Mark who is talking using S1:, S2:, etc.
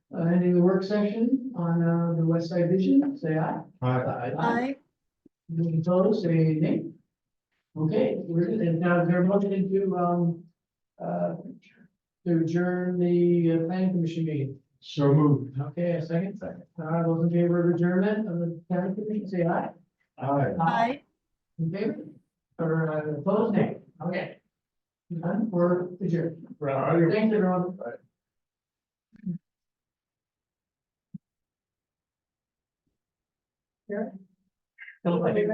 S1: uh, ending the work session on, uh, the West Side Vision, say aye.
S2: Aye.
S3: Aye.
S1: Those opposed, say nay. Okay, we're, and now is there a motion to, um, uh, to adjourn the uh, planning commission meeting?
S2: So moved.
S1: Okay, a second? Second. Uh, those in favor of adjournment of the planning commission, say aye.
S2: Aye.
S3: Aye.
S1: In favor? Or uh, opposed, nay? Okay. None, we're adjourned. Thanks, everyone. Here. Don't let me-